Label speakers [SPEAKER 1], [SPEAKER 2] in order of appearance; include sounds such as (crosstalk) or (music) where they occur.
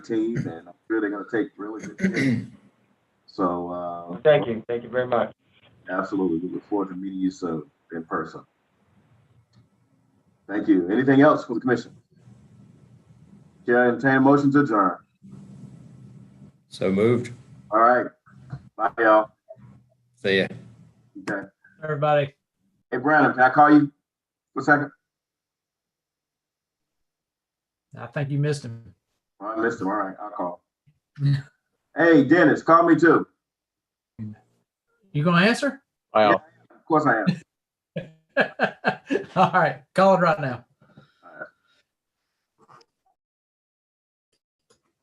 [SPEAKER 1] team, and I'm sure they're going to take really good care. of you. So, uh,
[SPEAKER 2] Well, Thank you, thank you very much.
[SPEAKER 1] Absolutely. We look forward to meeting you soon in person. Thank you. Anything else for the commission? Chair, entertain a motion to adjourn.
[SPEAKER 3] So moved.
[SPEAKER 1] All right. Bye, y'all.
[SPEAKER 3] See ya.
[SPEAKER 1] Okay.
[SPEAKER 4] everybody.
[SPEAKER 1] Hey, Brandon, can I call you for a second?
[SPEAKER 4] I think you missed him.
[SPEAKER 1] All right, listen, all right, I'll call. Hey, Dennis, call me too.
[SPEAKER 4] You gonna answer? (laughs)
[SPEAKER 1] Of course I am.
[SPEAKER 4] All right, call it right now.